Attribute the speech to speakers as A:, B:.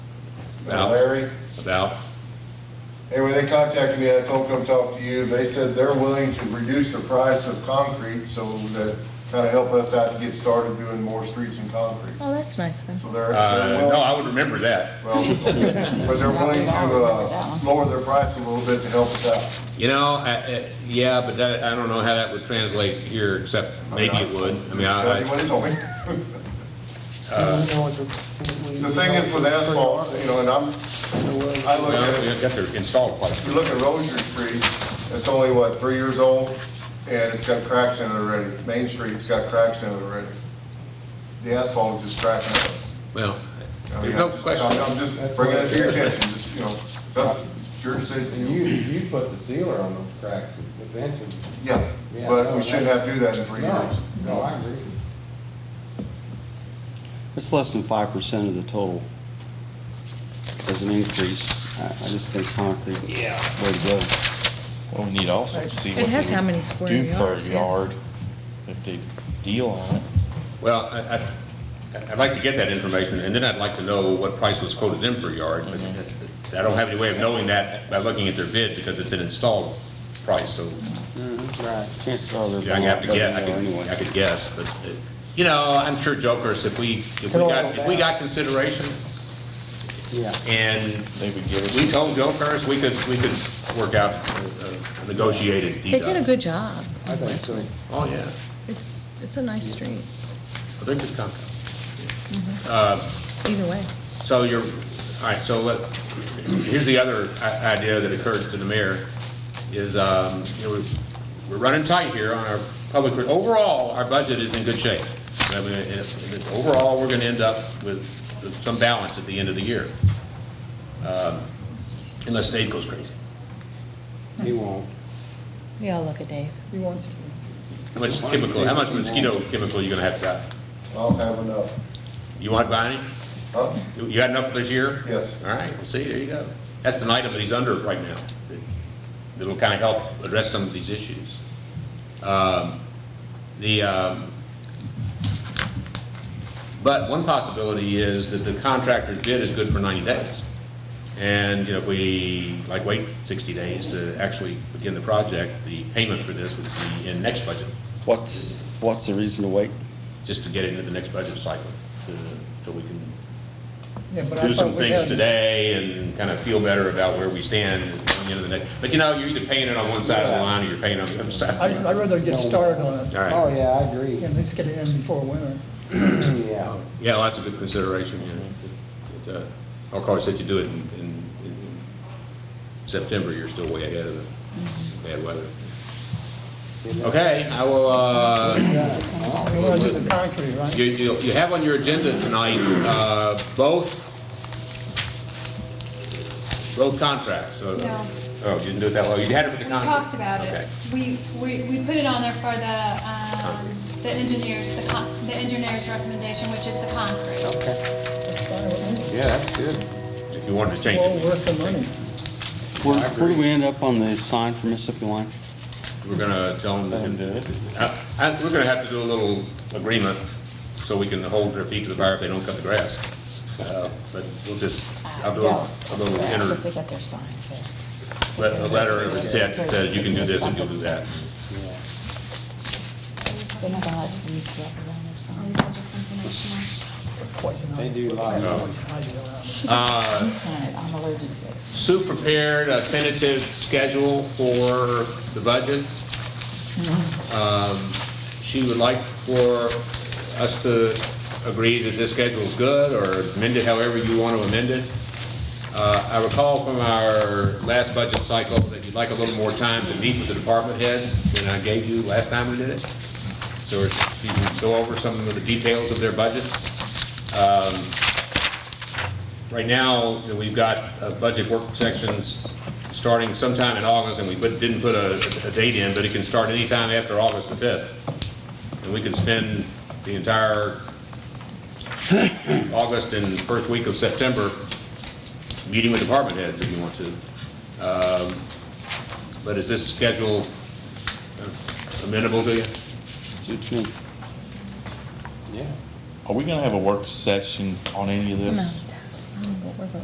A: Yeah.
B: Larry.
A: about,
B: Anyway, they contacted me, I told them to talk to you, they said they're willing to reduce the price of concrete, so that kind of help us out to get started doing more streets in concrete.
C: Oh, that's nice of him.
B: So they're,
A: uh,
B: they're
A: no,
B: willing,
A: I would remember that.
B: well, but they're willing to, uh, lower their price a little bit to help us out.
A: You know, I- I- yeah, but that, I don't know how that would translate here, except maybe it would. I mean,
B: Tell
A: I,
B: you
A: I- uh,
B: what he told me. The
D: The
B: thing is with asphalt, you know, and I'm, I look at
A: well,
B: it,
A: you have to install quite a
B: you look at Rosier Street, it's only, what, three years old, and it's got cracks in it already. Main Street's got cracks in it already. The asphalt is just cracking up.
A: Well,
B: I mean,
A: there's no
B: I'm-
A: question.
B: I'm just bringing it to your attention, just, you know, it's up- it's your
D: And
B: decision,
D: you, you put the sealer on those cracks, the venting.
B: yeah,
D: Yeah,
B: but
D: no,
B: we shouldn't have to do that in three years.
D: No, no, I agree.
E: It's less than five percent of the total as an increase. I, I just think concrete is the way to go.
F: Well, we need to also see
C: It
F: what
C: has
F: they
C: how
F: would
C: many square
F: do per
C: yards, yeah.
F: yard, if they deal on it.
A: Well, I, I- I'd like to get that information, and then I'd like to know what price was quoted in per yard. but I don't have any way of knowing that by looking at their bid, because it's an installed price, so
E: Mm-hmm, Right. Chances are they're
A: Yeah, I
E: going
A: have
E: up
A: to guess, I
E: anyway.
A: could, I could guess, but, uh, you know, I'm sure jokers, if we, if we got, if we got consideration,
E: Yeah.
A: and
F: They would give us.
A: we told jokers, we could, we could work out a- a negotiated
C: They did a
A: deal.
C: good job.
D: I think so.
A: Oh, yeah,
C: It's, it's a nice street,
A: Well, they're good company.
C: either way.
A: So you're, all right, so let, here's the other i- idea that occurred to the mayor, is, um, you know, we've- we're running tight here on our public, overall, our budget is in good shape. I mean, it- it- Overall, we're gonna end up with some balance at the end of the year. Um, Unless Dave goes crazy.
D: He won't.
C: We all look at Dave.
G: He wants to.
A: How much chemical, how much mosquito chemical you gonna have to buy?
B: I'll have enough.
A: You want to buy any?
B: Huh?
A: You- You got enough for this year?
B: Yes.
A: All right, well, see, there you go. That's an item that he's under right now, that- that'll kind of help address some of these issues. Um, The, um, but one possibility is that the contractor's bid is good for 90 days. And, you know, if we, like, wait 60 days to actually begin the project, the payment for this would be in next budget,
E: What's, what's the reason to wait?
A: just to get into the next budget cycle, to- so we can
G: Yeah, but I
A: do some
G: thought we
A: things
G: had-
A: today and kind of feel better about where we stand at the end of the day. But you know, you're either paying it on one side of the line or you're paying on the other side.
G: I'd,
A: of the line.
G: I'd rather get started on it,
A: All
D: Oh,
A: right.
D: yeah, I agree.
G: and let's get it in before winter.
D: Yeah.
A: Yeah, well, that's a good consideration, you know. But, uh, Of course, if you do it in, in- in September, you're still way ahead of the bad weather. Okay, I will, uh,
G: We want to do the concrete, right?
A: You, you you have on your agenda tonight, uh, both road contracts. so-
H: No.
A: Oh, you didn't do it that well, you had it for
H: We
A: the contract?
H: talked about
A: Okay.
H: it. We, we, we put it on there for the, um, the engineers, the con, the engineer's recommendation, which is the concrete.
D: Okay.
G: That's fine with me.
D: Yeah, that's good.
A: If you wanted to change
G: Well,
A: it,
G: worth the money.
E: Where, where do we end up on the sign for Mississippi Line?
A: we're gonna tell them.
E: Let 'em do it.
A: Uh, uh, We're gonna have to do a little agreement, so we can hold their feet to the fire if they don't cut the grass. Uh, But we'll just, I'll do a a little inner,
C: They got their signs
A: let- a letter of intent that says you can do this if you'll do that.
C: They have a lot of use for that.
H: Or is that just informational?
G: Poison
D: They do like.
G: always hide it around.
A: Uh,
C: I'm allergic to it.
A: Sue prepared a tentative schedule for the budget. Um, She would like for us to agree that this schedule is good, or amend it however you want to amend it. Uh, I recall from our last budget cycle that you'd like a little more time to meet with the department heads than I gave you last time we did it. So you can go over some of the details of their budgets. Um, Right now, that we've got uh, budget work sections starting sometime in August, and we put- didn't put a, a date in, but it can start anytime after August the 5th. And we can spend the entire August and first week of September meeting with department heads if you want to. Um, But is this schedule uh, amenable to you?
E: Suits me.
D: Yeah.
F: Are we gonna have a work session on any of this?
C: I don't know Oh, what we're gonna